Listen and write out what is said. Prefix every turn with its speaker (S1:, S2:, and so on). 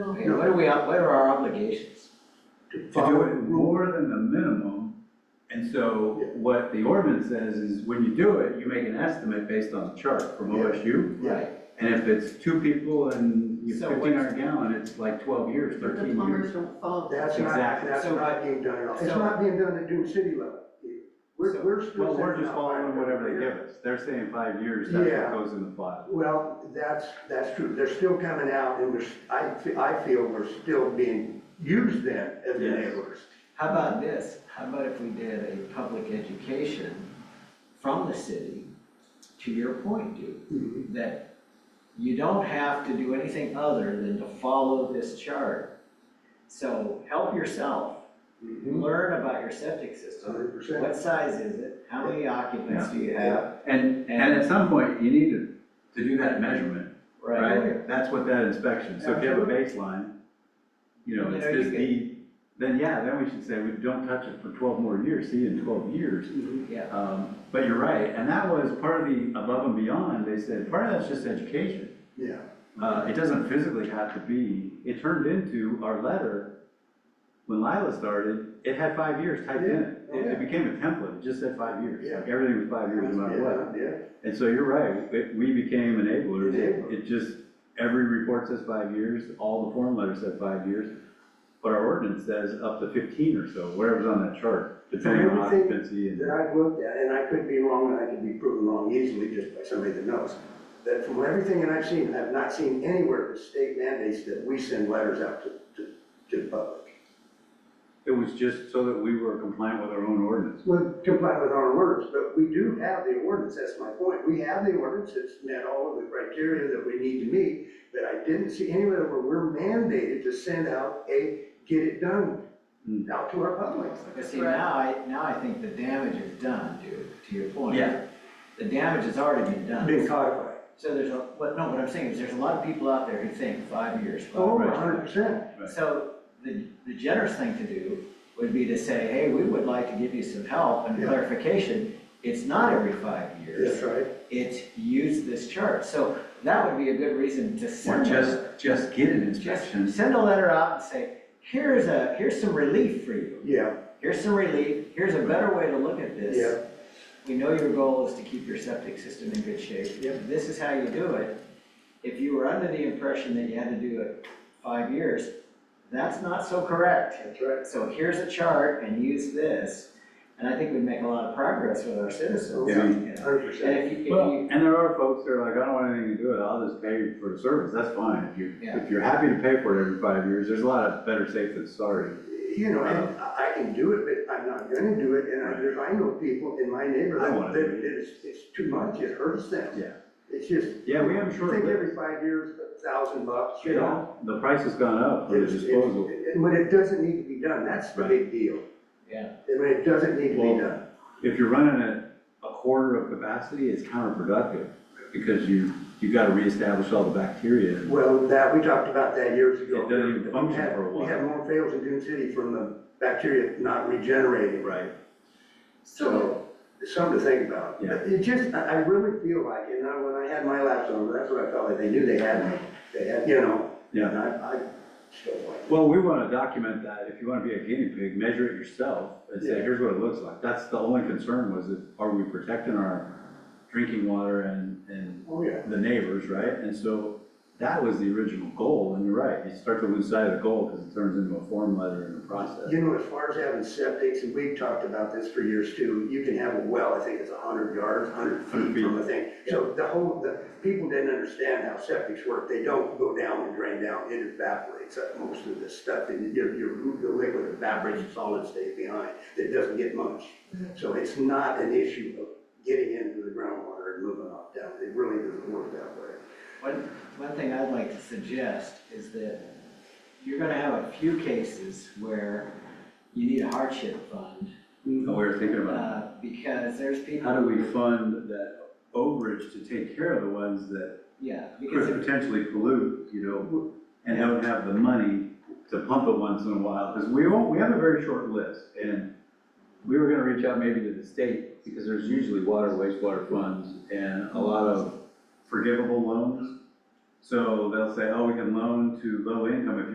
S1: You know, what are we, what are our obligations?
S2: to
S3: to do it
S2: rule.
S3: more than the minimum. And so what the ordinance says is when you do it, you make an estimate based on the chart from
S2: Yeah.
S3: OSU.
S1: Right.
S3: And if it's two people and you
S1: So
S3: fifteen
S1: what's-
S3: hundred gallon, it's like twelve years,
S4: But the
S3: thirteen years.
S4: plumbers don't follow that.
S2: That's not,
S3: Exactly.
S2: that's
S1: So-
S2: not being done at all. It's
S1: so-
S2: not being done at Dune City level. We're,
S1: So-
S2: we're still.
S3: Well, we're
S2: sending
S3: just
S2: out
S3: following
S2: five
S3: whatever
S2: every
S3: they
S2: year.
S3: give us. They're saying five years, that's
S2: Yeah.
S3: what goes in the file.
S2: Well, that's, that's true. They're still coming out and we're, s- I, fe- I feel we're still being used then as
S3: Yes.
S2: enablers.
S1: How about this? How about if we did a public education from the city, to your point, Duke,
S2: Mm-hmm.
S1: that you don't have to do anything other than to follow this chart. So help yourself, learn about your septic system.
S2: Mm-hmm. Hundred percent.
S1: What size is it? How many occupants do you have?
S3: And, and at some point, you need to, to do that measurement,
S1: away.
S3: right? That's what that inspection, so if you have a baseline, you know, it's
S1: Yeah, you
S3: this
S1: can-
S3: deep, then yeah, then we should say, we don't touch it for twelve more years, see you in twelve years.
S2: Mm-hmm.
S1: Yeah,
S3: Um, But you're right, and that was part of the above and beyond, they said, part of that's just education.
S2: Yeah.
S3: Uh, It doesn't physically have to be, it turned into our letter, when Lila started, it had five years typed in it.
S2: Yeah, oh
S3: It
S2: yeah.
S3: it became a template, it just said five years,
S2: Yeah.
S3: like everything was five years no matter what.
S2: Yeah,
S3: And so you're right, it, we became enablers,
S2: Enabler.
S3: It- it just, every report says five years, all the form letters said five years, but our ordinance says up to fifteen or so, whatever's on that chart, depending on
S2: everything
S3: occupancy and.
S2: that I've looked at, and I could be wrong, and I could be proven wrong easily just by somebody that knows. That from everything that I've seen, I've not seen anywhere the state mandates that we send letters out to, to, to the public.
S3: It was just so that we were compliant with our own ordinance.
S2: Well, comply with our orders, but we do have the ordinance, that's my point. We have the ordinance, it's met all of the criteria that we need to meet, but I didn't see anywhere where we're mandated to send out a get it done
S3: Hmm.
S2: out to our public.
S1: but see, now I, now I think the damage is done, Duke, to your point.
S3: Yeah.
S1: The damage has already been done.
S2: Being codified.
S1: So there's a, what, no, what I'm saying is there's a lot of people out there who think five years,
S2: Oh,
S1: five
S2: a
S1: years.
S2: hundred percent.
S3: Right.
S1: So the, the generous thing to do would be to say, hey, we would like to give you some help and
S2: Yeah.
S1: clarification. It's not every five
S2: That's
S1: years,
S2: right.
S1: it's use this chart. So that would be a good reason to
S3: Or
S1: send. a-
S3: just, just get an
S1: Just
S3: inspection.
S1: send a letter out and say, here's a, here's some relief for you.
S2: Yeah,
S1: Here's some relief, here's a better way to look at this.
S2: yeah.
S1: We know your goal is to keep your septic system in good shape.
S2: Yep.
S1: This is how you do it. If you were under the impression that you had to do it five years, that's not so correct.
S2: That's right.
S1: So here's a chart and use this, and I think we'd make a lot of progress with our citizens.
S2: Yeah.
S1: you know.
S2: Hundred
S1: And
S2: percent.
S1: if you, if
S3: Well,
S1: you,
S3: and there are folks that are like, I don't want anything to do with it, I'll just pay for the service, that's fine. If you,
S1: Yeah.
S3: if you're happy to pay for it every five years, there's a lot of better safe than sorry.
S2: You know, and
S3: Uh-huh.
S2: I I can do it, but I'm not gonna do it, and I, there's, I know people in my
S3: I wanna
S2: neighborhood
S3: do
S2: that
S3: it.
S2: it's, it's too much, it hurts them.
S3: Yeah.
S2: It's just.
S3: Yeah, we have short
S2: Think
S3: lives.
S2: every five years, a thousand bucks, you
S3: Yeah,
S2: know?
S3: The price has gone up for the
S2: It's- it's-
S3: disposal.
S2: And when it doesn't need to be done, that's the
S3: Right.
S2: big deal.
S1: yeah,
S2: And when it doesn't need to be
S3: Well-
S2: done.
S3: If you're running at a quarter of capacity, it's counterproductive because you, you've got to reestablish all the bacteria. and-
S2: Well, that, we talked about that years ago.
S3: It doesn't even
S2: We
S3: function
S2: had-
S3: for a
S2: We had
S3: while.
S2: more fails in Dune City from the bacteria not regenerating.
S3: Right.
S4: So,
S2: So, it's something to think about.
S3: Yeah.
S2: But It just, I, I really feel like, and I, when I had my laps over, that's what I felt like, they knew they had me, they had, you know, and
S3: Yeah.
S2: I, I still like.
S3: Well, we want to document that. If you want to be a guinea pig, measure it yourself and say,
S2: Yeah.
S3: here's what it looks like. That's the only concern was that are we protecting our drinking water and, and
S2: Oh, yeah.
S3: the neighbors, right? And so that was the original goal. And you're right, you start to lose sight of the goal because it turns into a form letter in the process.
S2: You know, as far as having septics, and we've talked about this for years too, you can have a well, I think it's hundred yards, hundred feet from the thing. So the whole, the, people didn't understand how septics work, they don't go down and drain down, it evaporates, uh, most of this stuff, and your, your, your liquid evaporates, the solid stays behind, that doesn't get much. So it's not an issue of getting into the groundwater and moving off down, it really doesn't work that way.
S1: one, one thing I'd like to suggest is that you're gonna have a few cases where you need a hardship fund,
S3: And we were thinking about it.
S1: uh, because there's people.
S3: How do we fund that overage to take care of the ones that
S1: Yeah, because
S3: could
S1: if
S3: potentially pollute, you know, and don't have the money to pump it once in a while? Because we won't, we have a very short list, and we were gonna reach out maybe to the state, because there's usually water, wastewater funds, and a lot of forgivable loans. So they'll say, oh, we can loan to low income if you